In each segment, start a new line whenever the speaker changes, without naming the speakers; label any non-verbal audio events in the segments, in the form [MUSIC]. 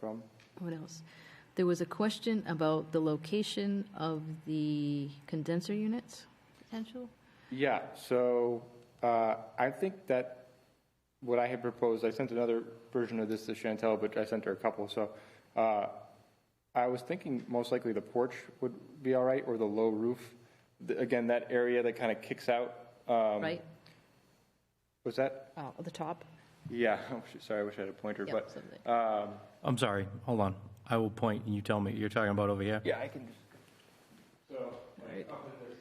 From?
What else? There was a question about the location of the condenser units, potential?
Yeah, so uh, I think that what I had proposed, I sent another version of this to Chantel, but I sent her a couple, so uh, I was thinking most likely the porch would be all right, or the low roof. The- Again, that area that kind of kicks out. um,
Right?
Was that?
Oh, the top?
Yeah, [LAUGHS] I wish- sorry, I wish I had a pointer,
Yeah,
but,
something.
um,
I'm sorry, hold on. I will point and you tell me, you're talking about over here?
yeah, I can just. So, like, up in this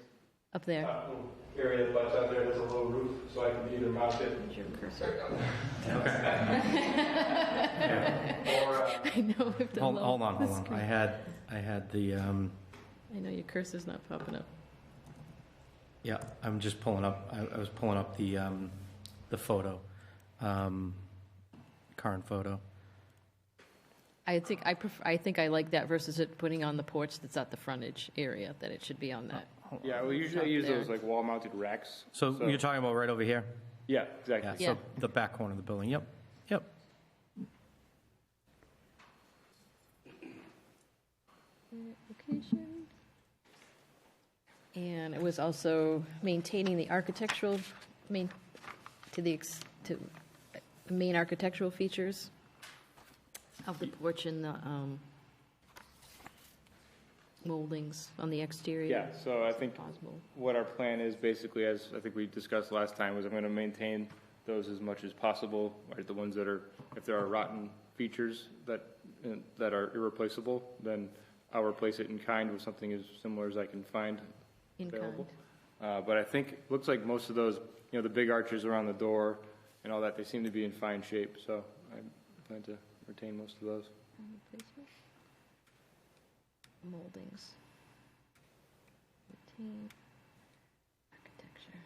Up there.
uh, little area that butts out there, there's a low roof, so I can either mount it
[LAUGHS] I know if the
Hold
low-
hold on,
the
hold on. I
screen-
had, I had the, um,
I know your cursor's not popping up.
yeah, I'm just pulling up, I I was pulling up the, um, the photo, um, current photo.
I think, I prefer, I think I like that versus it putting on the porch that's at the frontage area, that it should be on that.
Yeah, well, usually I
Up
use
there.
those like wall-mounted racks.
So you're talking about right over here?
Yeah,
Yeah,
exactly.
Yeah.
so the back corner of the building, yep, yep.
Location. And it was also maintaining the architectural, main, to the, ex- to uh, the main architectural features of the porch and the um, moldings on the
Yeah,
exterior.
so I think
Possible.
what our plan is basically, as I think we discussed last time, was I'm gonna maintain those as much as possible, right? The ones that are, if there are rotten features that, that are irreplaceable, then I'll replace it in kind with something as similar as I can find
In
available.
kind.
Uh, but I think, looks like most of those, you know, the big arches around the door and all that, they seem to be in fine shape, so I plan to retain most of those.
Moldings. Routine. Architecture.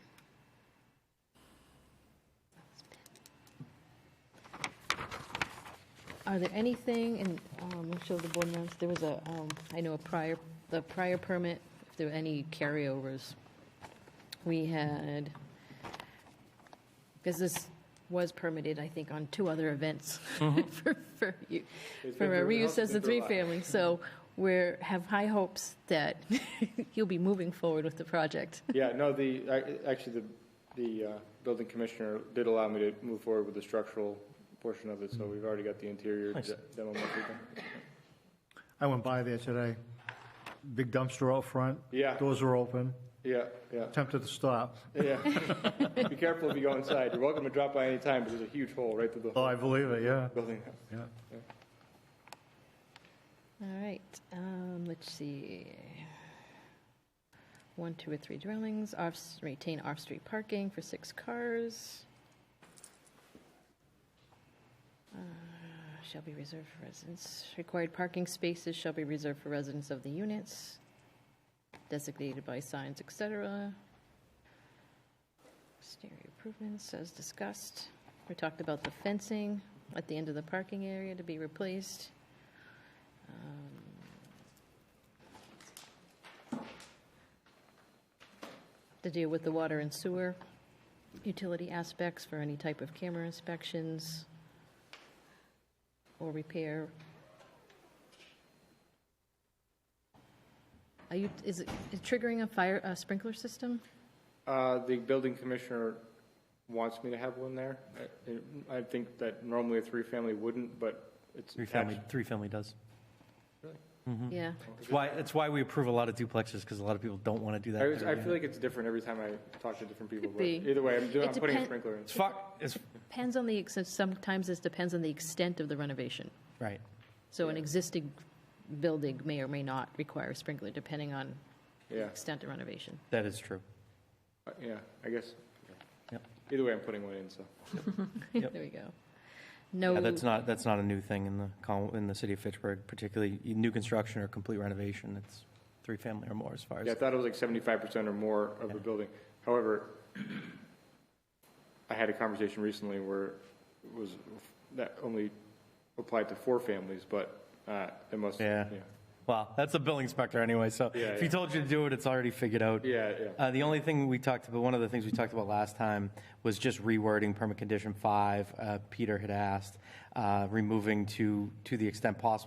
Are there anything, and um, I'll show the board members, there was a, um, I know a prior, the prior permit, if there were any carryovers. We had, because this was permitted, I think, on two other events [LAUGHS] for, for you,
Mm-hmm. It's been
for a
through- it's
reuse as
been through
a
a
three
lot.
family. So we're, have high hopes that [LAUGHS] you'll be moving forward with the project.
Yeah, no, the, I- actually, the, the uh, building commissioner did allow me to move forward with the structural portion of it, so we've already got the interior
Mm-hmm. Nice.
de- demo. mostly done.
I went by there today. Big dumpster out front.
Yeah.
Doors are open.
Yeah, yeah,
Tempted to stop.
yeah.
[LAUGHS]
Be careful if you go inside. You're welcome to drop by any time, but there's a huge hole right through the
Oh, I
whole
believe it, yeah.
building.
Yeah.
All right, um, let's see. One, two, or three dwellings, off, retain off-street parking for six cars. Uh, Shall be reserved for residents. Required parking spaces shall be reserved for residents of the units, designated by signs, et cetera. Exterior improvements as discussed. We talked about the fencing at the end of the parking area to be replaced. Um, to deal with the water and sewer utility aspects for any type of camera inspections or repair. Are you, is it is triggering a fire, a sprinkler system?
Uh, The building commissioner wants me to have one there. I- I think that normally a three-family wouldn't, but it's
Three-family,
attached.
three-family does.
Yeah,
That's why, that's why we approve a lot of duplexes, because a lot of people don't want to do that.
I was- I
they're-
feel like it's different every time I talk to different people,
Could
but
be.
either way, I'm doing,
It
I'm putting a
depen-
sprinkler in.
It's fuck, it's,
depends on the, ex- sometimes this depends on the extent of the renovation.
right.
So an existing building may or may not require a sprinkler, depending on the
Yeah.
extent of renovation. [LAUGHS]
That is true.
Uh, Yeah, I guess.
Yep.
Either way, I'm putting one in, so.
There
Yep.
we go.
Yeah,
No,
that's not, that's not a new thing in the, col- in the city of Fitchburg, particularly new construction or complete renovation. It's three-family or more as far as.
Yeah, I thought it was like seventy-five percent or more of a building. However, I had a conversation recently where it was, that only applied to four families, but uh, it must, yeah.
Yeah. Well, that's a building inspector anyway, so
Yeah,
if he
yeah.
told you to do it, it's already figured out.
Yeah, yeah.
Uh, the only thing we talked about, one of the things we talked about last time was just rewording permit condition five. Uh, Peter had asked, uh, removing to, to the extent possible